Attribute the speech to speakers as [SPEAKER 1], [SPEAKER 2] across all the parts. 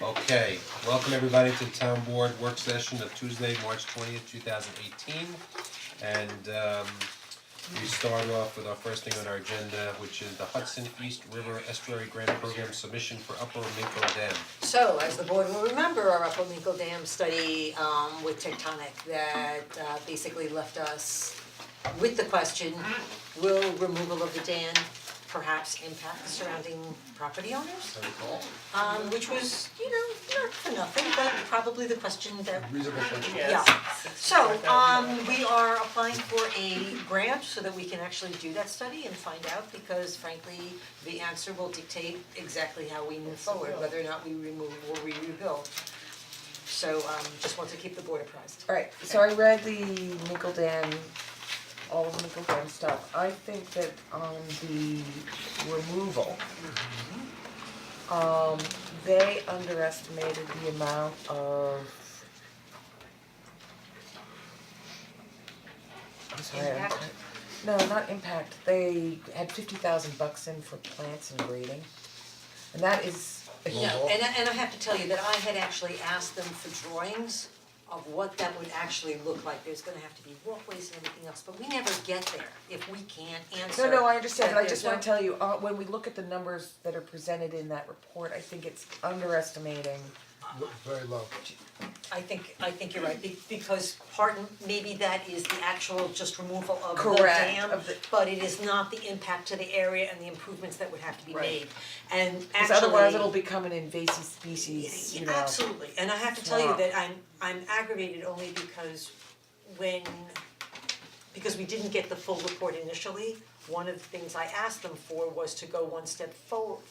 [SPEAKER 1] Okay, welcome everybody to the town board work session of Tuesday, March twentieth, two thousand eighteen. And um we start off with our first thing on our agenda, which is the Hudson East River Estuary Grant Program submission for Upper Minko Dam.
[SPEAKER 2] So, as the board will remember, our Upper Minkle Dam study um with Tectonic that uh basically left us with the question, will removal of the dam perhaps impact surrounding property owners? Um which was, you know, not for nothing, but probably the question that
[SPEAKER 3] Reasonable question.
[SPEAKER 2] yeah, so um we are applying for a grant so that we can actually do that study and find out because frankly, the answer will dictate exactly how we move forward, whether or not we remove or we rebuild. So um just want to keep the board apprised.
[SPEAKER 4] Alright, so I read the Nickel Dam, all of the Nickel Dam stuff, I think that on the removal. Um, they underestimated the amount of. I'm sorry, I'm
[SPEAKER 2] Impact?
[SPEAKER 4] try- No, not impact, they had fifty thousand bucks in for plants and grading, and that is a huge.
[SPEAKER 2] No, and I and I have to tell you that I had actually asked them for drawings of what that would actually look like, there's gonna have to be walkways and everything else, but we never get there if we can't answer.
[SPEAKER 4] No, no, I understand,
[SPEAKER 2] that
[SPEAKER 4] but I
[SPEAKER 2] there's
[SPEAKER 4] just wanna
[SPEAKER 2] no-
[SPEAKER 4] tell you, uh, when we look at the numbers that are presented in that report, I think it's underestimating.
[SPEAKER 3] Very low.
[SPEAKER 2] I think, I think you're right, be- because part, maybe that is the actual just removal of the
[SPEAKER 4] Correct,
[SPEAKER 2] dam,
[SPEAKER 4] of the-
[SPEAKER 2] but it is not the impact to the area and the improvements that would have to be
[SPEAKER 4] Right.
[SPEAKER 2] made. And actually.
[SPEAKER 4] Cause otherwise it'll become an invasive species, you
[SPEAKER 2] Yeah,
[SPEAKER 4] know.
[SPEAKER 2] Absolutely, and I have to tell you
[SPEAKER 4] Wow.
[SPEAKER 2] that I'm, I'm aggravated only because when, because we didn't get the full report initially, one of the things I asked them for was to go one step forward,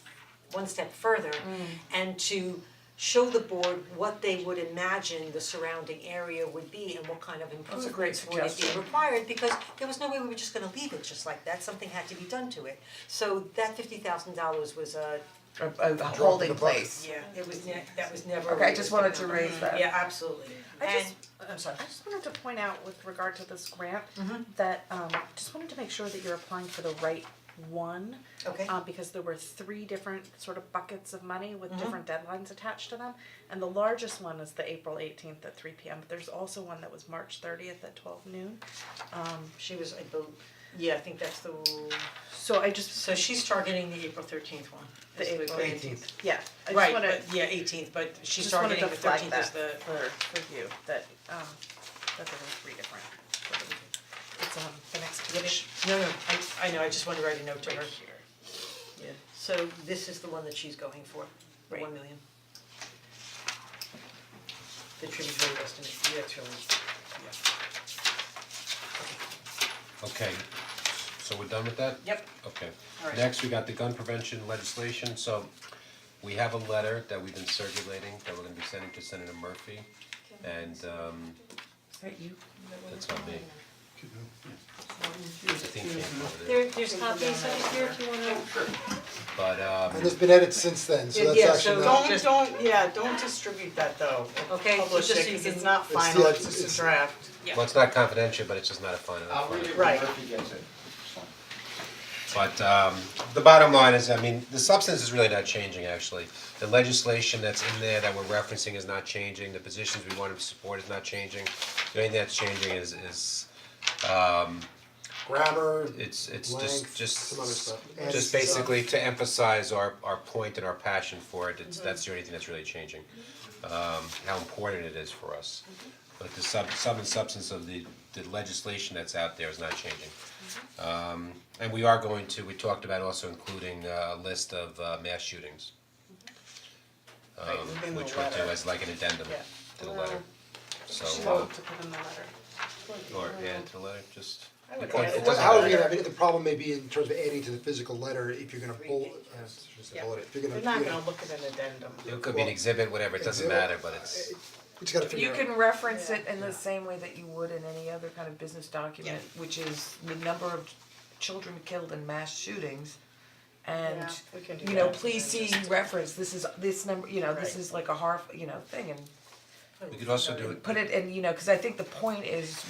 [SPEAKER 2] one step further
[SPEAKER 4] Mm.
[SPEAKER 2] and to show the board what they would imagine the surrounding area would be and what kind of
[SPEAKER 4] That's a great
[SPEAKER 2] improvements would it be
[SPEAKER 4] suggestion.
[SPEAKER 2] required, because there was no way we were just gonna leave it just like that, something had to be done to it. So that fifty thousand dollars was a
[SPEAKER 4] A, a holding place.
[SPEAKER 2] yeah, it was ne- that was never. a
[SPEAKER 4] Okay, I just
[SPEAKER 2] realistic
[SPEAKER 4] wanted to
[SPEAKER 2] number.
[SPEAKER 4] raise that.
[SPEAKER 2] Yeah, absolutely.
[SPEAKER 5] I
[SPEAKER 2] And-
[SPEAKER 5] just-
[SPEAKER 2] I'm sorry.
[SPEAKER 5] I just wanted to point out with regard to this grant,
[SPEAKER 2] Mm-hmm.
[SPEAKER 5] that um just wanted to make sure that you're applying for the right one.
[SPEAKER 2] Okay.
[SPEAKER 5] Uh, because there were three different sort of buckets of money with
[SPEAKER 2] Mm-hmm.
[SPEAKER 5] different deadlines attached to them. And the largest one is the April eighteenth at three P M, but there's also one that was March thirtieth at twelve noon.
[SPEAKER 2] She was, I bel yeah, I think that's the,
[SPEAKER 5] So I just,
[SPEAKER 2] so she's targeting the April thirteenth one.
[SPEAKER 5] The
[SPEAKER 2] is
[SPEAKER 5] April
[SPEAKER 2] grant.
[SPEAKER 3] Eighteenth.
[SPEAKER 5] yeah, I just
[SPEAKER 2] Right,
[SPEAKER 5] wanna,
[SPEAKER 2] but yeah, eighteenth, but she's
[SPEAKER 5] just wanted
[SPEAKER 2] targeting
[SPEAKER 5] to
[SPEAKER 2] the
[SPEAKER 5] flag
[SPEAKER 2] thirteenth
[SPEAKER 5] that
[SPEAKER 2] as the,
[SPEAKER 5] for for you, that um that there were three different. It's on the next page.
[SPEAKER 2] no, no, I I know, I just wanted to write a note to her. Yeah, so this is the one that she's going for, the
[SPEAKER 5] Right.
[SPEAKER 2] one million. The tributary estimate, yeah, it's really, yeah.
[SPEAKER 1] Okay, so we're done with that?
[SPEAKER 2] Yep.
[SPEAKER 1] Okay,
[SPEAKER 2] All right.
[SPEAKER 1] next we got the gun prevention legislation, so we have a letter that we've been circulating that we're gonna be sending to Senator Murphy. And um
[SPEAKER 4] Is that you?
[SPEAKER 1] that's not me. I think he came over there.
[SPEAKER 2] There, there's copies of here if you wanna.
[SPEAKER 1] But
[SPEAKER 3] And there's
[SPEAKER 1] um
[SPEAKER 3] been edits since then, so that's
[SPEAKER 2] Yeah,
[SPEAKER 3] actually
[SPEAKER 2] so
[SPEAKER 3] not,
[SPEAKER 6] Don't, don't, yeah, don't distribute that though, or
[SPEAKER 2] Okay, so
[SPEAKER 6] publish
[SPEAKER 2] just
[SPEAKER 6] it,
[SPEAKER 2] so you
[SPEAKER 6] 'cause
[SPEAKER 2] can-
[SPEAKER 6] it's not
[SPEAKER 3] It's
[SPEAKER 6] final,
[SPEAKER 3] the-
[SPEAKER 6] it's just
[SPEAKER 3] it's-
[SPEAKER 6] a draft.
[SPEAKER 1] well, it's not confidential, but it's just not a final.
[SPEAKER 7] I'll read it when
[SPEAKER 6] Right.
[SPEAKER 7] Murphy gets it.
[SPEAKER 1] But um the bottom line is, I mean, the substance is really not changing actually. The legislation that's in there that we're referencing is not changing, the positions we want to support is not changing. The only thing that's changing is is
[SPEAKER 3] grammar,
[SPEAKER 1] it's it's
[SPEAKER 3] length,
[SPEAKER 1] just
[SPEAKER 3] some other
[SPEAKER 1] just
[SPEAKER 3] stuff. And
[SPEAKER 1] just
[SPEAKER 3] stuff.
[SPEAKER 1] basically to emphasize our our point and our passion for it, it's
[SPEAKER 6] Mm-hmm.
[SPEAKER 1] that's the only thing that's really changing. Um how important it is for us.
[SPEAKER 6] Mm-hmm.
[SPEAKER 1] But the sub sub and substance of the the legislation that's out there is not changing.
[SPEAKER 6] Mm-hmm.
[SPEAKER 1] Um and we are going to, we talked about also including uh, a list of uh mass shootings. Um
[SPEAKER 6] Mm-hmm. Right, within the
[SPEAKER 1] which we'll do
[SPEAKER 6] letter.
[SPEAKER 1] as like an addendum
[SPEAKER 6] Yeah.
[SPEAKER 1] to the letter.
[SPEAKER 5] She
[SPEAKER 1] So uh
[SPEAKER 5] wanted to put in the letter.
[SPEAKER 1] or add to the letter, just
[SPEAKER 6] I would
[SPEAKER 1] it doesn't-
[SPEAKER 6] add
[SPEAKER 1] it
[SPEAKER 6] it.
[SPEAKER 1] doesn't
[SPEAKER 3] However,
[SPEAKER 1] matter.
[SPEAKER 3] you know, I mean, the problem may be in terms of adding to the physical letter, if you're gonna bullet, uh, just a
[SPEAKER 6] Yeah.
[SPEAKER 3] bullet, if you're gonna,
[SPEAKER 6] They're
[SPEAKER 3] you
[SPEAKER 6] not
[SPEAKER 3] know,
[SPEAKER 6] gonna look at an addendum.
[SPEAKER 1] It could be an exhibit, whatever, it doesn't
[SPEAKER 3] Exhibit.
[SPEAKER 1] matter, but it's,
[SPEAKER 3] we just gotta figure
[SPEAKER 4] You
[SPEAKER 3] out.
[SPEAKER 4] can reference it in the same way that you would in any other kind of business document,
[SPEAKER 6] Yeah.
[SPEAKER 4] which is the number of children killed in mass shootings. And,
[SPEAKER 6] Yeah, we can do
[SPEAKER 4] you know,
[SPEAKER 6] that,
[SPEAKER 4] please
[SPEAKER 6] and
[SPEAKER 4] see reference, this is, this number, you know, this
[SPEAKER 6] Right.
[SPEAKER 4] is like a harf, you know, thing and
[SPEAKER 1] we could also do it
[SPEAKER 4] put it in, you know, cause I think the point is